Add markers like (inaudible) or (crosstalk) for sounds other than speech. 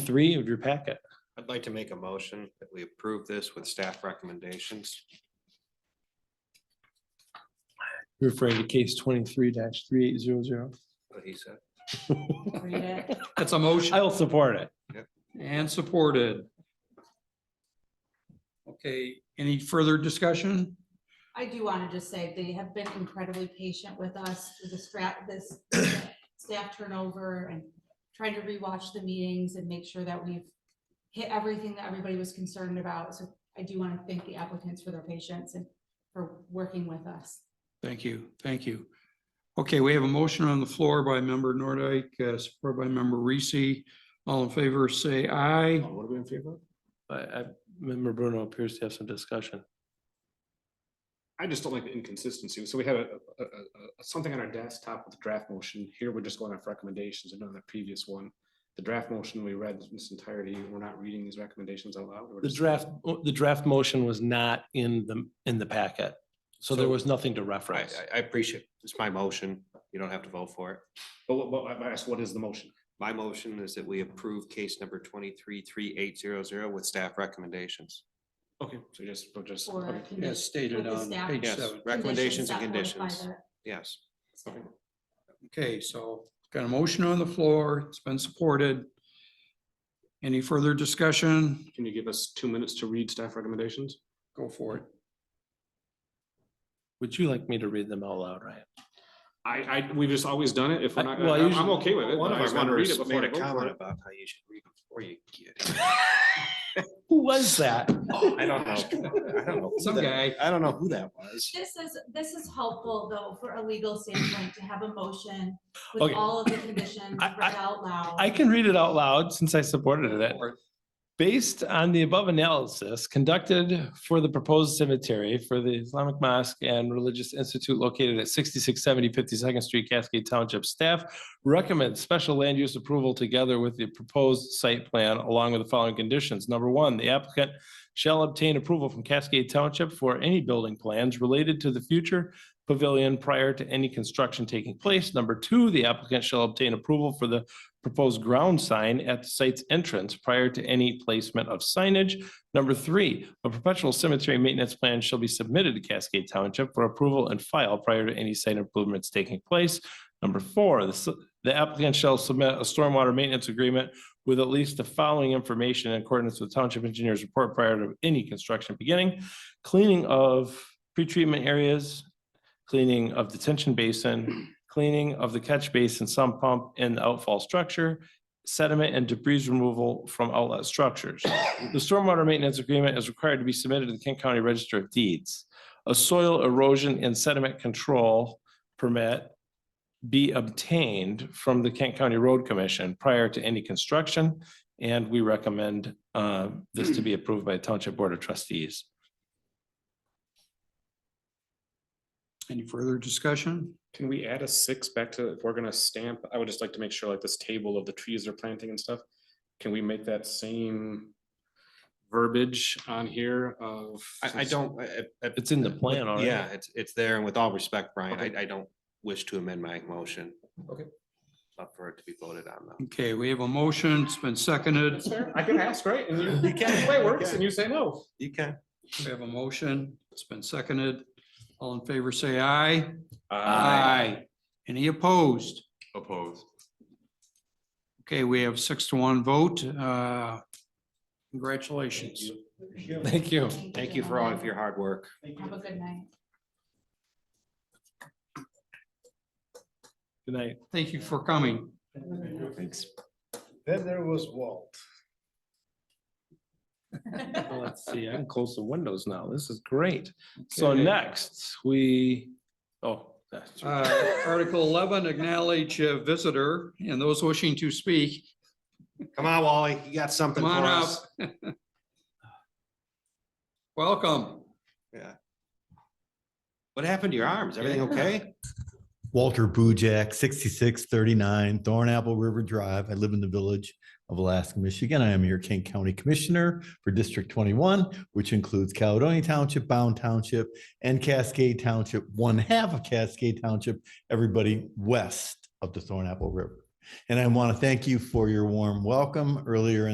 three of your packet. I'd like to make a motion that we approve this with staff recommendations. Referring to case twenty-three three eight zero zero. What he said. Read it. That's a motion I'll support it. and supported. Okay, any further discussion? I do want to just say they have been incredibly patient with us through the strap, this staff turnover and trying to rewatch the meetings and make sure that we've hit everything that everybody was concerned about. So I do want to thank the applicants for their patience and for working with us. Thank you, thank you. Okay, we have a motion on the floor by member Nordike, uh, supported by member Reese. All in favor, say aye. What are we in favor? of? I, I remember Bruno appears to have some discussion. I just don't like the inconsistency. So we had a, a, a- a- something on our desktop with the draft motion. Here, we're just going off recommendations. I know in the previous one, the draft motion we read in its entirety, we're not reading these recommendations out loud. We're The just- draft, the draft motion was not in the, in the packet. So there So- was nothing to I, reference. I- I appreciate, it. it's my motion, you don't have to vote for it. But, what- but I asked, what is the motion? My motion is that we approve case number twenty-three, three, eight, zero, zero with staff recommendations. Okay, so just, we're just, Or okay. can As stated With the on staff. page Yes, seven. recommendations and that modify conditions, the yes. staff. Okay, so got a motion on the floor. It's been supported. Any further discussion? can you give us two minutes to read staff recommendations? Go for it. Would you like me to read them out loud, Ryan? I, I, we've just always done it. If we're I- not, well, I'm, I'm usually- okay with it. One of but I our just wanna read it members before made I a vote for comment it. about how you should read before you get (laughs) Who was (laughs) that? it. I don't know. I don't know. who Some that- guy. I don't know who that was. This is, this is helpful though, for a legal standpoint, to have a motion with Okay. all of the conditions I- I- read out loud. I can read it out loud since I supported it. Go for it. Based on the above analysis conducted for the proposed cemetery for the Islamic Mosque and Religious Institute located at 6670 52nd Street, Cascade Township, staff recommends special land use approval together with the proposed site plan along with the following conditions. Number one, the applicant shall obtain approval from Cascade Township for any building plans related to the future pavilion prior to any construction taking place. Number two, the applicant shall obtain approval for the proposed ground sign at the site's entrance prior to any placement of signage. Number three, a perpetual cemetery maintenance plan shall be submitted to Cascade Township for approval and file prior to any site improvements taking place. Number four, the s- the applicant shall submit a stormwater maintenance agreement with at least the following information in accordance with Township Engineers Report prior to any construction beginning. Cleaning of pretreatment areas, cleaning of detention basin, cleaning of the catch basin, sump pump and the outfall structure, sediment and debris removal from outlet structures. The stormwater maintenance agreement is required to be submitted to the Kent County Register of Deeds. A soil erosion and sediment control permit be obtained from the Kent County Road Commission prior to any construction. And we recommend uh, this to be approved by Township Board of Trustees. Any further discussion? Can we add a six back to, if we're gonna stamp, I would just like to make sure like this table of the trees they're planting and stuff. Can we make that same verbiage on here of? I, I don't, I, I- I- It's in the plan already. yeah, it's, it's there, and with all respect, Brian, I, I don't wish to amend my motion. Okay. Up for it to be voted on, though. Okay, we have a motion. It's been seconded. That's fair. I can ask, right? And you, you can't (laughs) play works and you say no. You can. We have a motion. It's been seconded. All in favor, say aye. Any opposed? Opposed. Okay, we have six to one vote. Uh, Congratulations. Thank you. Thank you for all of your hard work. Have a good night. Good night. Thank you for coming. Then there was Walt. (laughs) Well, Oh, Let's see, I can close the windows now. This is great. So Okay. next, we, oh. that's right. Uh, Article eleven, acknowledge a visitor and those wishing to speak. Come on, Wally, you got something Come for on up. us. Welcome. What happened to your arms? Everything okay? Walter Bujak, 6639 Thornapple River Drive. I live in the village of Alaska, Michigan. I am your King County Commissioner for District 21, which includes Caledonia Township, Bound Township, and Cascade Township, one half of Cascade Township, everybody west of the Thornapple River. And I want to thank you for your warm welcome earlier in